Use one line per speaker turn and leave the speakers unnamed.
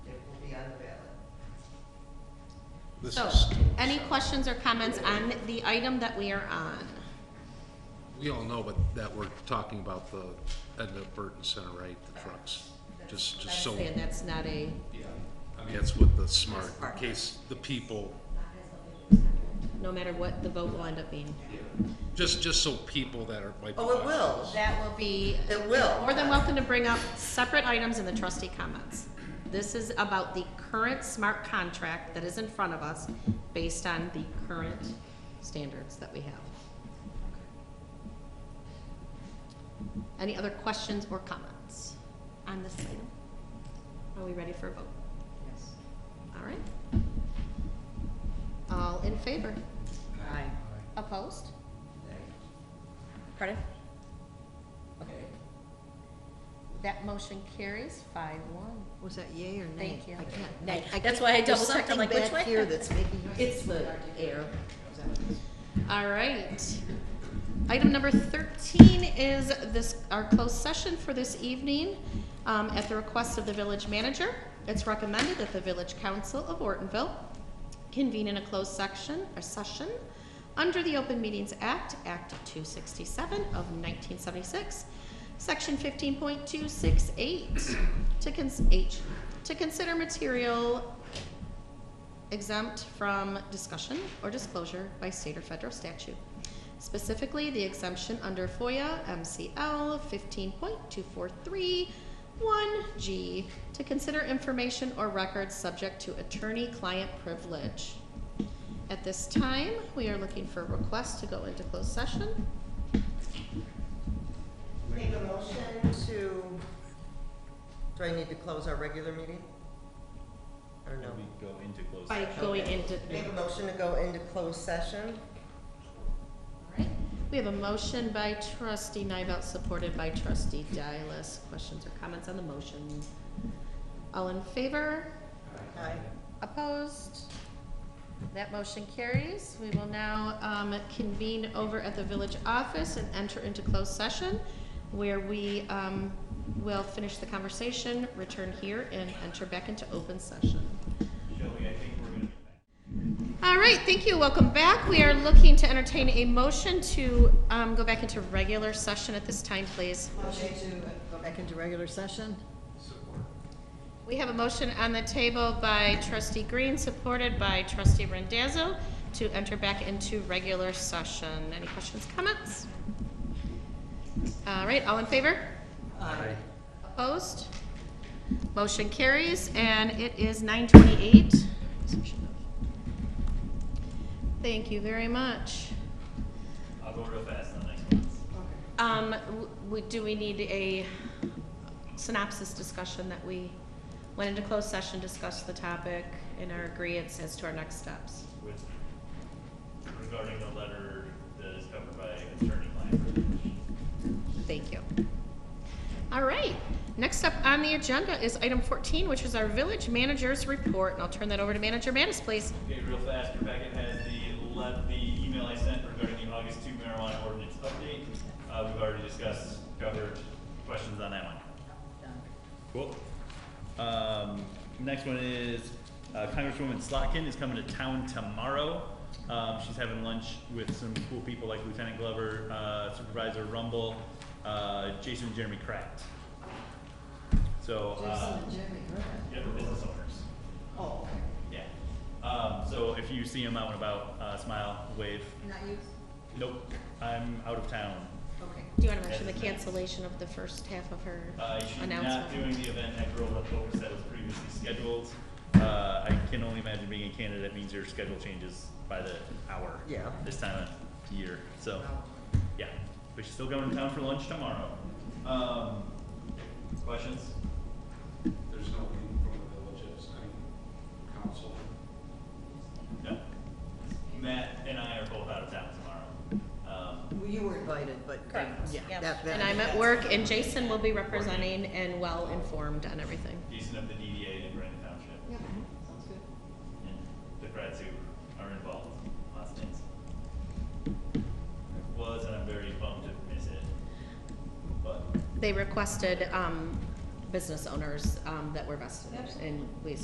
This
So,
is still
any
shot.
questions or comments on the item that we are on?
We all know, but that we're talking about the Edna Burton Center, right, the trucks, just, just so,
Saying that's not a,
that's what the smart, in case the people,
no matter what the vote will end up being.
just, just so people that are, might be
Oh, it
watching
will,
this-
That will be,
it will.
more than welcome to bring up separate items in the trustee comments. This is about the current smart contract that is in front of us based on the current standards that we have. Any other questions or comments on this item? Are we ready for a vote?
Yes.
All right. All in favor?
Aye.
Opposed?
Cardiff?
Okay.
That motion carries five one.
Was that yay or nay?
Thank you.
I can't.
Nay.
I- I
That's
can't-
why I
there's
double-checked. I'm
something
like, which way?
back here that's making.
It's the air. All right. Item number thirteen is this, our closed session for this evening, um, at the request of the village manager. It's recommended that the village council of Ortonville convene in a closed section, or session, under the Open Meetings Act, Act two sixty-seven of nineteen seventy-six, Section fifteen point two six eight, to cons- H, to consider material exempt from discussion or disclosure by state or federal statute. Specifically, the exemption under FOIA MCL fifteen point two four three one G to consider information or records subject to attorney-client privilege. At this time, we are looking for a request to go into closed session.
Make a motion to, do I need to close our regular meeting? Or no?
We go into closed
By going into.
Make a motion to go into closed session?
Alright, we have a motion by trustee Nivell, supported by trustee Dialis. Questions or comments on the motion? All in favor?
Aye.
Opposed? That motion carries. We will now um, convene over at the village office and enter into closed session where we um, will finish the conversation, return here, and enter back into open session.
Shelby, I think we're gonna be back.
All right, thank you. Welcome back. We are looking to entertain a motion to um, go back into regular session at this time, please.
Motion to go back
Back into regular session?
We have a motion on the table by trustee Green, supported by trustee Rendazzo, to enter back into regular session. Any questions, comments? All right, all in favor? Aye. Opposed? Motion carries, and it is nine twenty-eight. Thank you very much.
I'll go real fast on the next one.
Um, w- w- do we need a synopsis discussion that we went into closed session, discussed the topic and our agreeance as to our next steps?
With, regarding the letter that is covered by attorney-client privilege.
Thank you. All right, next up on the agenda is item fourteen, which is our village manager's report, and I'll turn that over to Manager Mattis, please.
Okay, real fast, Rebecca has the le the email I sent regarding the August two marijuana ordinance update. Uh, we've already discussed, covered, questions on that one? Cool. Um, next one is uh, Congresswoman Slotkin is coming to town tomorrow. Um, she's having lunch with some cool people like Lieutenant Glover, uh, Supervisor Rumble, uh, Jason and Jeremy Kraft. So, uh, yeah, the business owners.
Oh,
Yeah. Um, so if you see him out and about, uh, smile, wave.
not you?
Nope, I'm out of town.
Okay.
Do you want to mention the cancellation of the first half of her
Uh, she's not doing
announcement?
the event at Girl Up Focus that was previously scheduled. Uh, I can only imagine being in Canada, that means your schedule changes by the hour.
Yeah.
This time of year, so, yeah. But she's still going to town for lunch tomorrow. Um, questions?
There's nothing from the villages, I mean, council.
No? Matt and I are both out of town tomorrow. Um,
Well, You were invited, but.
Correct.
Yeah.
Yep.
that- that-
And I'm at work, and Jason will be representing and well-informed on everything.
Jason of the DDA in Brandon Township.
Mm-hmm.
And the grads who are involved, last names. Was, and I'm very bummed to miss it, but.
They requested um, business owners um, that were vested, in, and we